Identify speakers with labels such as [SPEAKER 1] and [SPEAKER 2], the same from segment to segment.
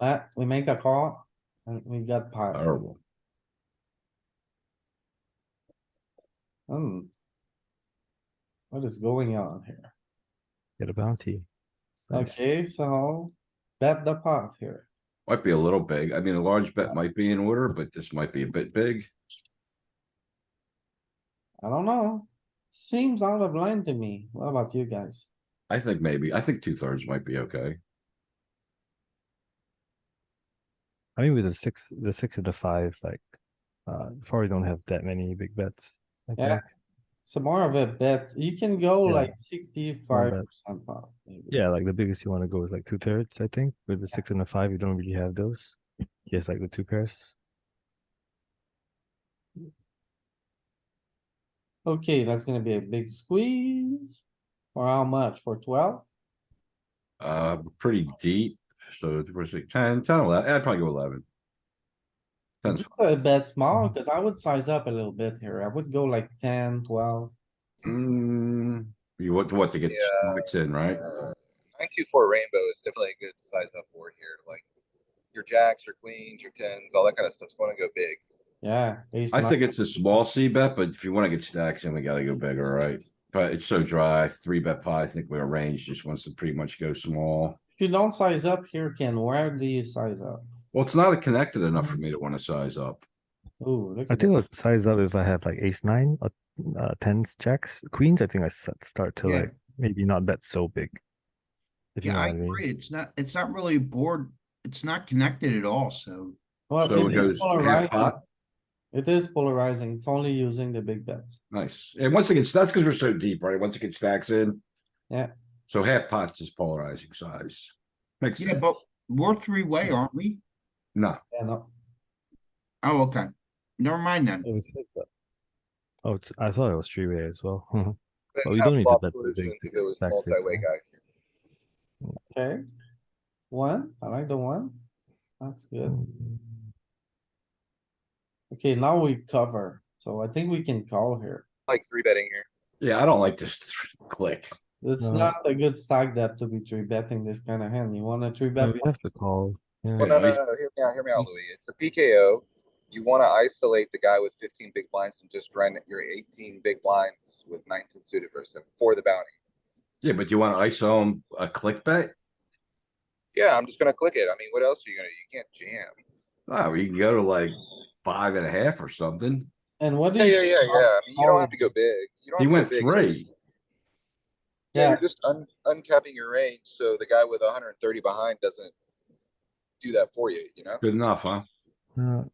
[SPEAKER 1] Uh, we make a call and we got pot.
[SPEAKER 2] Terrible.
[SPEAKER 1] Hmm. What is going on here?
[SPEAKER 3] Get a bounty. Nice.
[SPEAKER 1] Okay, so bet the pot here.
[SPEAKER 2] Might be a little big. I mean, a large bet might be in order, but this might be a bit big.
[SPEAKER 1] I don't know. Seems out of line to me. What about you guys?
[SPEAKER 2] I think maybe, I think two thirds might be okay.
[SPEAKER 3] I mean, with the six, the six and the five, like, uh, probably don't have that many big bets. I
[SPEAKER 1] Yeah.
[SPEAKER 3] think.
[SPEAKER 1] Some more of a bet. You can go
[SPEAKER 3] Yeah.
[SPEAKER 1] like sixty-five
[SPEAKER 3] bet.
[SPEAKER 1] percent pot. maybe.
[SPEAKER 3] Yeah, like the biggest you wanna go is like two thirds, I think. With the six and the five, you don't really have those.
[SPEAKER 4] Mm-hmm.
[SPEAKER 3] He has like the two pairs.
[SPEAKER 1] Okay, that's gonna be a big squeeze. For how much? For twelve?
[SPEAKER 2] Uh, pretty deep, so it was like 10, 10, 11. I'd eh, probably go eleven.
[SPEAKER 1] Is
[SPEAKER 2] Ten's
[SPEAKER 1] this a bet
[SPEAKER 2] Mm-hmm.
[SPEAKER 1] small? Cause I would size up a little bit here. I would go like 10, 12.
[SPEAKER 2] Mm, you want what to get
[SPEAKER 5] Yeah.
[SPEAKER 2] six in, right?
[SPEAKER 5] Nine two four Uh, rainbow is definitely a good size up board here. Like your jacks, your queens, your tens, all that kind of stuff's going to go big.
[SPEAKER 1] Yeah. ace
[SPEAKER 2] I
[SPEAKER 1] nine.
[SPEAKER 2] think it's a small C bet, but if you wanna get stacks in, we gotta go bigger, right? But it's so dry, three bet pie, I think our range just wants to pretty much go small.
[SPEAKER 1] If you don't size up here, Ken, where do you size up?
[SPEAKER 2] Well, it's not connected enough for me to wanna size up.
[SPEAKER 1] Ooh, look
[SPEAKER 3] I
[SPEAKER 1] at that.
[SPEAKER 3] think I'll size up if I have like ace nine, or, uh, tens, jacks, queens. I think I s- start to
[SPEAKER 4] Yeah.
[SPEAKER 3] like maybe not bet so big. If you
[SPEAKER 4] Yeah,
[SPEAKER 3] know
[SPEAKER 4] I
[SPEAKER 3] what I mean.
[SPEAKER 4] agree. It's not, it's not really a board. It's not connected at all, so
[SPEAKER 1] Well,
[SPEAKER 2] So
[SPEAKER 1] it
[SPEAKER 2] it
[SPEAKER 1] is
[SPEAKER 2] goes half
[SPEAKER 1] polarizing.
[SPEAKER 2] pot,
[SPEAKER 1] It is polarizing. It's only using the big bets.
[SPEAKER 2] nice. And once again, that's cuz we're so deep, right? Once it gets stacks in.
[SPEAKER 1] Yeah.
[SPEAKER 2] So half pots is polarizing size. Makes
[SPEAKER 4] yeah,
[SPEAKER 2] sense.
[SPEAKER 4] but we're three-way, aren't we?
[SPEAKER 2] No,
[SPEAKER 1] Yeah, no,
[SPEAKER 4] Oh, okay. Never mind then.
[SPEAKER 3] It was six, but- Oh, it's- I thought it was three way as well.
[SPEAKER 5] Then
[SPEAKER 3] Well, you
[SPEAKER 5] have
[SPEAKER 3] don't need to
[SPEAKER 5] flop
[SPEAKER 3] bet the big
[SPEAKER 5] solutions
[SPEAKER 3] to
[SPEAKER 5] if
[SPEAKER 3] get
[SPEAKER 5] it was
[SPEAKER 3] stacks big,
[SPEAKER 5] multi-way,
[SPEAKER 3] huh?
[SPEAKER 5] guys.
[SPEAKER 1] okay. One, I like the one. That's good.
[SPEAKER 3] Mm,
[SPEAKER 1] Okay, now we cover. So I think we can call here.
[SPEAKER 5] Like three betting here.
[SPEAKER 2] yeah, I don't like this click.
[SPEAKER 1] It's
[SPEAKER 3] No.
[SPEAKER 1] not a good stack depth to be three betting this kind of hand. You wanna three
[SPEAKER 3] No,
[SPEAKER 1] bet?
[SPEAKER 3] we have to call. Yeah.
[SPEAKER 5] Well, no, no,
[SPEAKER 2] we-
[SPEAKER 5] no, no, hear me out, hear me out, Louis. It's a PKO. You wanna isolate the guy with fifteen big blinds and just run your eighteen big blinds with nineteen suited versus him for the bounty.
[SPEAKER 2] Yeah, but you wanna ISO 'em a click bet?
[SPEAKER 5] Yeah, I'm just gonna click it. I mean, what else are you gonna, do? you can't jam.
[SPEAKER 2] Oh, you can go to like five and a half or something.
[SPEAKER 1] And what do
[SPEAKER 5] Yeah,
[SPEAKER 1] you?
[SPEAKER 5] yeah, yeah, yeah. I mean, you
[SPEAKER 1] Oh.
[SPEAKER 5] don't have to go big. You don't
[SPEAKER 2] He
[SPEAKER 5] have to go
[SPEAKER 2] went
[SPEAKER 5] big.
[SPEAKER 2] three.
[SPEAKER 5] Yeah,
[SPEAKER 1] Yeah.
[SPEAKER 5] you're just un- uncapping your range, so the guy with hundred and thirty behind doesn't do that for you, you know?
[SPEAKER 2] Good enough, huh?
[SPEAKER 3] Uh,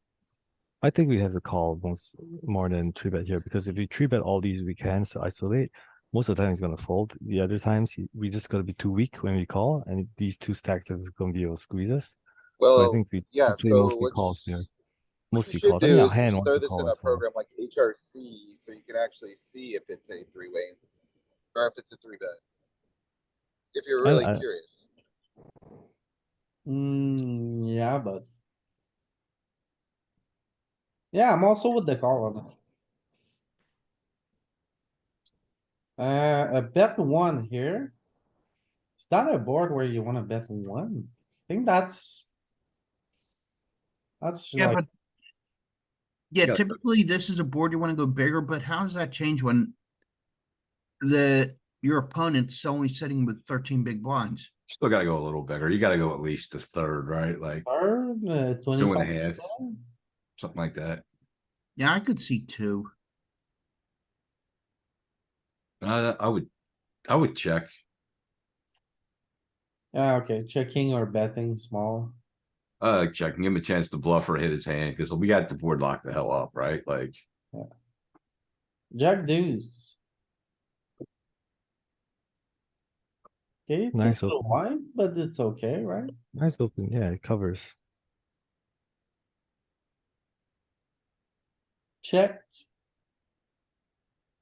[SPEAKER 3] I think we have to call most more than three bet here because if we three bet all these weak hands to isolate, most of the time he's gonna fold. The other times he, we just gotta be too weak when we call, and these two stacked is gonna be able to squeeze us. So I
[SPEAKER 5] Well,
[SPEAKER 3] think we
[SPEAKER 5] yeah,
[SPEAKER 3] play
[SPEAKER 5] so
[SPEAKER 3] mostly
[SPEAKER 5] what
[SPEAKER 3] calls
[SPEAKER 5] you-
[SPEAKER 3] here.
[SPEAKER 5] what you
[SPEAKER 3] Mostly
[SPEAKER 5] should
[SPEAKER 3] calls. I mean,
[SPEAKER 5] do
[SPEAKER 3] our
[SPEAKER 5] is
[SPEAKER 3] hand
[SPEAKER 5] just
[SPEAKER 3] wants
[SPEAKER 5] throw
[SPEAKER 3] to
[SPEAKER 5] this in
[SPEAKER 3] call
[SPEAKER 5] a
[SPEAKER 3] as well.
[SPEAKER 5] program like HRC, so you can actually see if it's a three-way or if it's a three bet. If you're
[SPEAKER 3] I-
[SPEAKER 5] really
[SPEAKER 3] I-
[SPEAKER 5] curious.
[SPEAKER 1] Hmm, yeah, but. Yeah, I'm also with the call on it. Uh, a bet one here. Is that a board where you wanna bet one? I think that's. That's
[SPEAKER 4] Yeah,
[SPEAKER 1] like,
[SPEAKER 4] but yeah,
[SPEAKER 2] Yeah.
[SPEAKER 4] typically this is a board you wanna go bigger, but how does that change when the, your opponent's only sitting with thirteen big blinds?
[SPEAKER 2] Still gotta go a little bigger. You gotta go at least a third, right? Like
[SPEAKER 1] third, uh,
[SPEAKER 2] two and a
[SPEAKER 1] twenty-five.
[SPEAKER 2] half, something like that.
[SPEAKER 4] Yeah, I could see two.
[SPEAKER 2] Uh, I would, I would check.
[SPEAKER 1] Yeah, okay, checking or betting small.
[SPEAKER 2] Uh, check, give him a chance to bluff or hit his hand, cause we got the board locked the hell up, right? Like,
[SPEAKER 1] Jack deuce. Okay, it's
[SPEAKER 3] Nice
[SPEAKER 1] a little
[SPEAKER 3] open.
[SPEAKER 1] wide, but it's okay, right?
[SPEAKER 3] Nice open, yeah, it covers.
[SPEAKER 1] Check.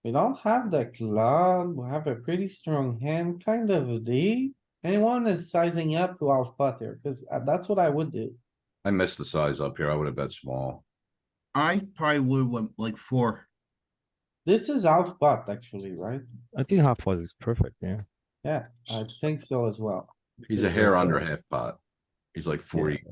[SPEAKER 1] We don't have the club, we have a pretty strong hand, kind of a D. Anyone is sizing up to our spot here, cuz uh, that's what I would do.
[SPEAKER 2] I missed the size up here. I would have bet small.
[SPEAKER 4] I probably would want like four.
[SPEAKER 1] This is our spot actually, right?
[SPEAKER 3] I think half was is perfect, yeah.
[SPEAKER 1] Yeah, I think so as well.
[SPEAKER 2] He's a hair under half pot. He's like forty